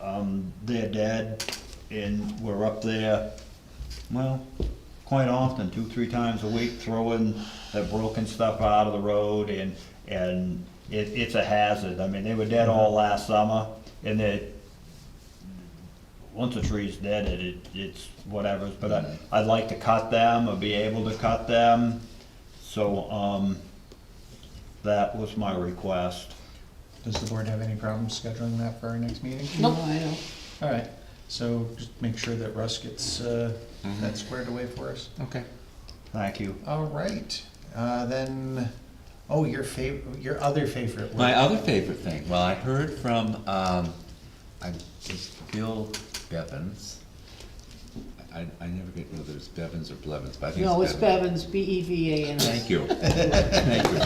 um, their dad, and we're up there, well, quite often, two, three times a week, throwing the broken stuff out of the road, and, and it, it's a hazard. I mean, they were dead all last summer, and they, once a tree's dead, it- it, it's whatever, but I, I'd like to cut them or be able to cut them. So, um, that was my request. Does the board have any problems scheduling that for our next meeting? No, I know. All right, so just make sure that Russ gets uh, Mm-hmm. that squared away for us. Okay. Thank you. All right, uh, then, oh, your favorite, your other favorite My word. other favorite thing, well, I heard from, um, I, it's Bill Bevins. I, I never get whether it's Bevins or Blevins, but I think it's Bevins. No, it's Bevins, B E V A N I. Thank you, thank you.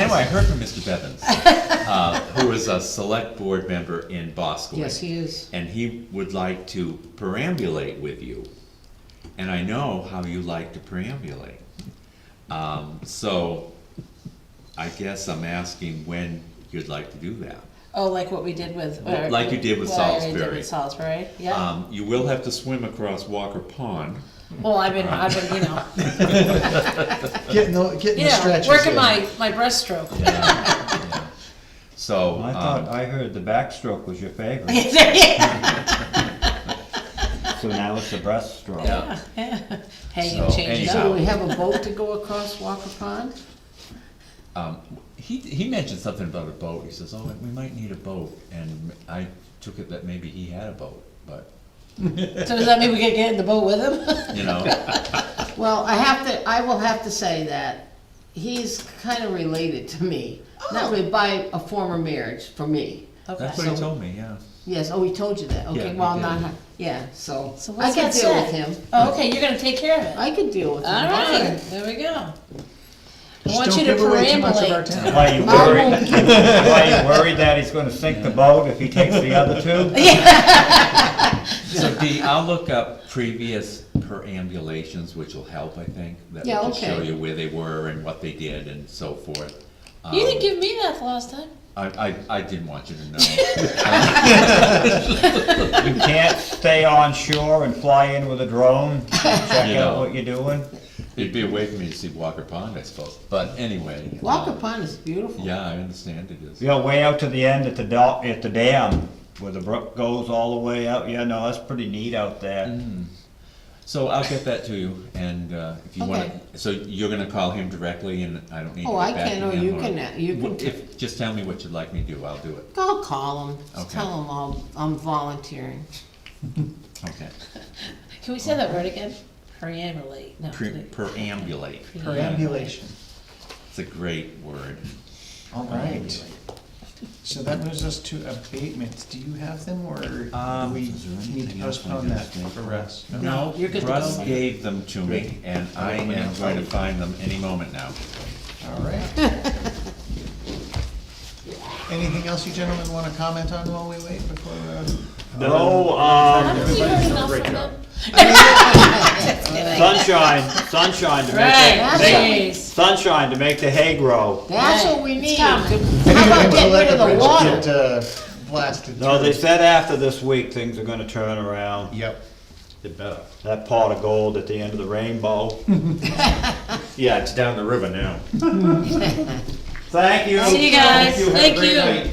Anyway, I heard from Mr. Bevins, uh, who is a select board member in Bosquen. Yes, he is. And he would like to perambulate with you. And I know how you like to perambulate. Um, so I guess I'm asking when you'd like to do that. Oh, like what we did with. Well, or- like you did with what I already Salisbury. did with Salisbury, yeah. Um, you will have to swim across Walker Pond. Well, I've been, I've been, you know, Getting the, getting you the know, stretches working in. my, my breaststroke. So, I thought, um, I heard the backstroke was your favorite, Yeah, so now it's the breaststroke. yeah, Hey, So, you changed anyhow. up. Do we have a boat to go across Walker Pond? um, he, he mentioned something about a boat. He says, oh, we might need a boat. And I took it that maybe he had a boat, but, So does that mean we could get in the boat with him? you know. Well, I have to, I will have to say that he's kind of related to me. Oh. Not really by a former marriage, for me. That's Okay. what he told me, yeah. Yes, oh, he told you that, Yeah, okay, he well, did. not, yeah, so, So I what's can that deal with say? him. Oh, okay, you're gonna take care of it. I can deal with him. All right, there we go. I Just want you don't to give away too much of our perambulate. town. Why you I worried, won't give- why you worried that he's gonna sink the boat if he takes the other two? So Dee, I'll look up previous perambulations, which will help, I think. That Yeah, will just show okay. you where they were and what they did and so forth. You Um, didn't give me that the last time. I, I, I didn't want you to know. You can't stay on shore and fly in with a drone, check You out know. what you're doing. It'd be a way for me to see Walker Pond, I suppose, but anyway. Walker um, Pond is beautiful. Yeah, I understand it is. You're way out to the end at the dock, at the dam, where the brook goes all the way out, yeah, no, that's pretty neat out there. So I'll get that to you, and uh, if you Okay. wanna, so you're gonna call him directly and I don't need to Oh, I get back to can, him? or you can, uh, you Wh- can, If, just tell me what you'd like me to do, I'll do it. I'll call him, just Okay. tell him I'll, I'm volunteering. Okay. Can we say that word again? Perambulate, no. Pre- Perambulate. Perambulation, It's a great word. all right. So that moves us to abatements, do you have them, or do Um, we is there need to anything else I postpone can that do? for Russ? No, you're good to Russ go. gave them to me, and I am going to find them any moment now. All right. Anything else you gentlemen wanna comment on while we wait before, uh, No, um, Haven't we heard enough from them? Sunshine, sunshine to make Right, the, make- jeez. sunshine to make the hay grow. That's Right. what we It's need, how coming. about getting rid of the water? Get, uh, blasted No, they through. said after this week, things are gonna turn around. Yep. They better. That pot of gold at the end of the rainbow. Yeah, it's down the river now. Thank you. See you guys. Have a Thank great you. night.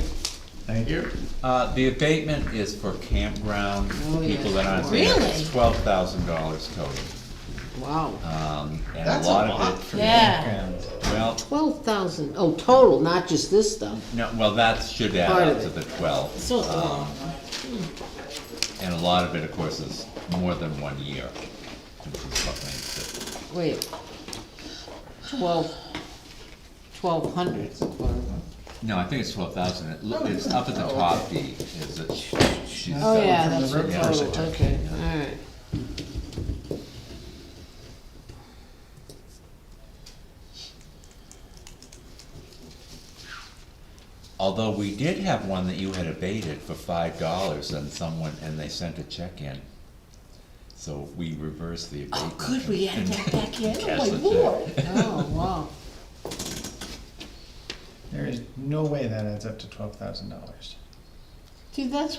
Thank you. Uh, the abatement is for campground Oh, yeah. people that aren't. Really? Twelve thousand dollars total. Wow, Um, and a That's a lot lot of for Yeah. campground. it, well, twelve thousand, oh, total, not just this stuff. no, well, that should add Part up of to it. the twelve. So it's a lot. Um, And a lot of it, of course, is more than one year, which is what makes it. Wait, twelve, twelve hundred. No, I think it's twelve thousand, it, loo- it's up at the top, D, is it, she's, Oh, got- yeah, from the that's road the first total, attack. okay, alright. although we did have one that you had abated for five dollars and someone, and they sent a check in. So we reversed the Oh, abatement. good, we had and- that back in, Cash oh my the check. lord. Oh, wow. There is no way that adds up to twelve thousand dollars. Dude, that's